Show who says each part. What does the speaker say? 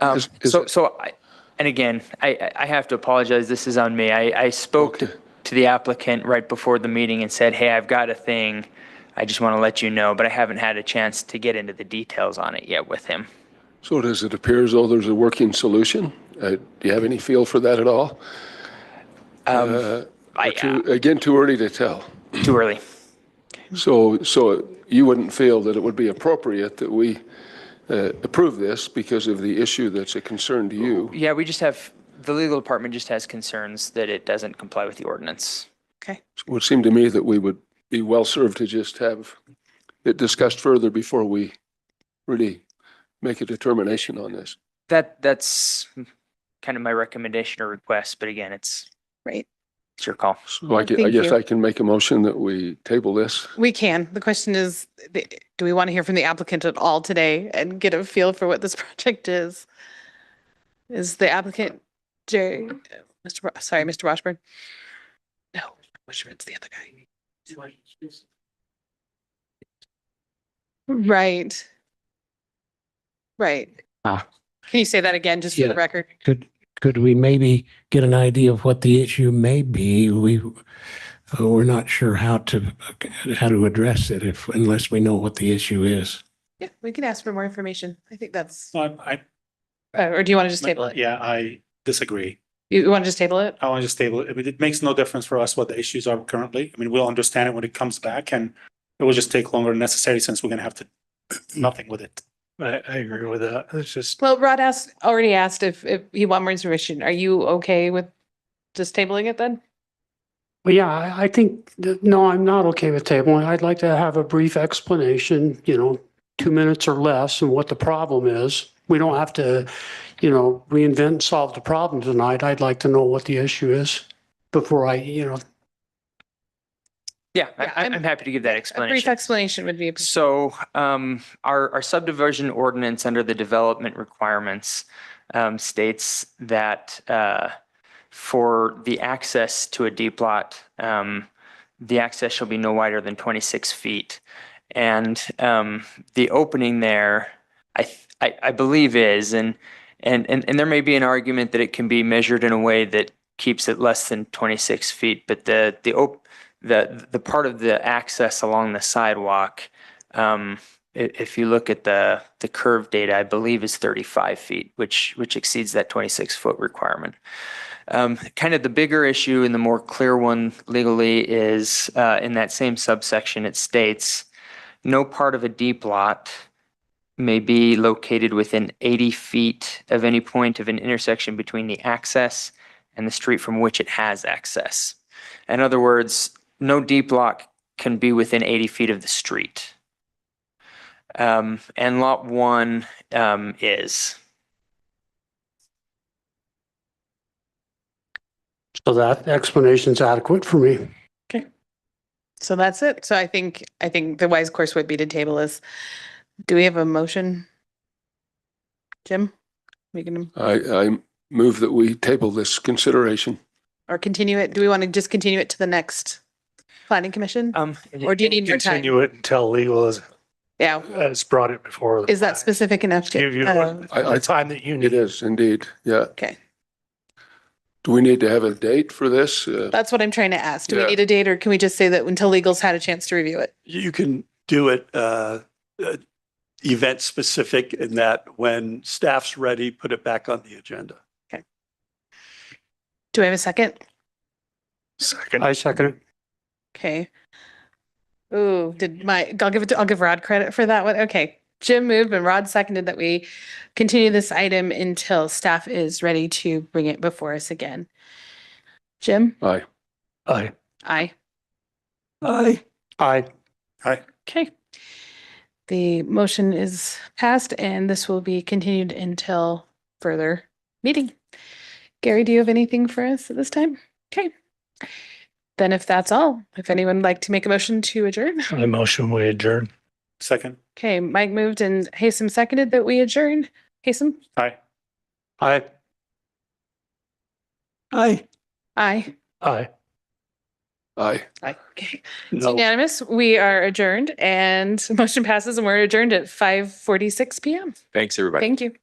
Speaker 1: Um,
Speaker 2: Is- is
Speaker 1: So,
Speaker 2: it-
Speaker 1: so, I- and again, I, I- I have to apologize, this is on me. I, I spoke to
Speaker 2: Okay.
Speaker 1: to the applicant right before the meeting and said, hey, I've got a thing, I just want to let you know, but I haven't had a chance to get into the details on it yet with him.
Speaker 2: So does it appear as though there's a working solution? Uh, Do you have any feel for that at all? Uh,
Speaker 1: I-
Speaker 2: or too- Again, too early to tell.
Speaker 1: Too early.
Speaker 2: So, so you wouldn't feel that it would be appropriate that we uh, approve this because of the issue that's a concern to you?
Speaker 1: Yeah, we just have, the legal department just has concerns that it doesn't comply with the ordinance.
Speaker 3: Okay.
Speaker 2: It would seem to me that we would be well served to just have it discussed further before we really make a determination on this.
Speaker 1: That, that's kind of my recommendation or request, but again, it's,
Speaker 3: Right.
Speaker 1: it's your call.
Speaker 2: So I gue- I
Speaker 3: Thank
Speaker 2: guess
Speaker 3: you.
Speaker 2: I can make a motion that we table this.
Speaker 3: We can. The question is, th- do we want to hear from the applicant at all today and get a feel for what this project is? Is the applicant Jerry, Mr. Wa- sorry, Mr. Washburn? No, Washburn's the other guy. Right. Right.
Speaker 4: Ah.
Speaker 3: Can you say that again, just for
Speaker 4: Yeah.
Speaker 3: the record?
Speaker 4: Could, could we maybe get an idea of what the issue may be? We, uh, we're not sure how to, how to address it if, unless we know what the issue is.
Speaker 3: Yeah, we can ask for more information. I think that's,
Speaker 5: So I, I,
Speaker 3: uh, or do you want to just table it?
Speaker 5: yeah, I disagree.
Speaker 3: You want to just table it?
Speaker 5: I want to just table it. I mean, it makes no difference for us what the issues are currently. I mean, we'll understand it when it comes back and it will just take longer than necessary since we're gonna have to, nothing with it.
Speaker 6: I, I agree with that. It's just,
Speaker 3: Well, Rod asked, already asked if, if he want more information. Are you okay with just tabling it then?
Speaker 6: well, yeah, I, I think, that- no, I'm not okay with tabling. I'd like to have a brief explanation, you know, two minutes or less and what the problem is. We don't have to, you know, reinvent and solve the problem tonight. I'd like to know what the issue is before I, you know,
Speaker 1: Yeah,
Speaker 3: Yeah,
Speaker 1: I-
Speaker 3: I'm-
Speaker 1: I'm, I'm happy to give that
Speaker 3: A
Speaker 1: explanation.
Speaker 3: brief explanation would be,
Speaker 1: So um, our, our subdivision ordinance under the development requirements um, states that uh, for the access to a deep lot, um, the access shall be no wider than 26 feet. And um, the opening there, I, th- I, I believe is, and, and, and and there may be an argument that it can be measured in a way that keeps it less than 26 feet, but the, the, op- the, the part of the access along the sidewalk, um, i- if you look at the, the curve data, I believe is 35 feet, which, which exceeds that 26 foot requirement. Um, kind of the bigger issue and the more clear one legally is, uh, in that same subsection, it states, no part of a deep lot may be located within 80 feet of any point of an intersection between the access and the street from which it has access. In other words, no deep lot can be within 80 feet of the street. Um, and lot one um, is.
Speaker 6: so that explanation's adequate for me.
Speaker 3: so that's it. So I think, I think the wise course would be to table this. Do we have a motion? Jim? We can,
Speaker 2: I, I move that we table this consideration.
Speaker 3: or continue it? Do we want to just continue it to the next planning commission?
Speaker 1: Um,
Speaker 3: Or do you need more time?
Speaker 6: Continue it until legal has,
Speaker 3: Yeah,
Speaker 6: has brought it before. the
Speaker 3: is that
Speaker 6: fact.
Speaker 3: specific enough
Speaker 6: Give you
Speaker 3: to? uh,
Speaker 2: I- I-
Speaker 6: the time that you
Speaker 2: It
Speaker 6: need.
Speaker 2: is indeed, yeah.
Speaker 3: Okay,
Speaker 2: Do we need to have a date for this? Uh,
Speaker 3: that's what I'm trying to ask. Do we
Speaker 2: Yeah.
Speaker 3: need a date or can we just say that until legal's had a chance to review it?
Speaker 7: you can do it uh, uh, event specific in that when staff's ready, put it back on the agenda.
Speaker 3: Do I have a second?
Speaker 6: Second. I second it.
Speaker 3: Okay. Ooh, did my, I'll give it to, I'll give Rod credit for that one. Okay. Jim moved and Rod seconded that we continue this item until staff is ready to bring it before us again. Jim?
Speaker 2: Aye.
Speaker 6: Aye.
Speaker 3: Aye.
Speaker 7: Aye.
Speaker 6: Aye.
Speaker 3: Okay. The motion is passed and this will be continued until further meeting. Gary, do you have anything for us at this time? Okay. Then if that's all, if anyone would like to make a motion to adjourn?
Speaker 6: I motion we adjourn.
Speaker 5: Second,
Speaker 3: Okay, Mike moved and Hasem seconded that we adjourn. Hasem?
Speaker 5: aye.
Speaker 6: Aye.
Speaker 7: Aye.
Speaker 3: Aye.
Speaker 6: Aye.
Speaker 2: Aye.
Speaker 3: Aye. Okay. It's
Speaker 7: No.
Speaker 3: unanimous. We are adjourned and motion passes and we're adjourned at five forty-six PM.
Speaker 8: Thanks, everybody.
Speaker 3: Thank you.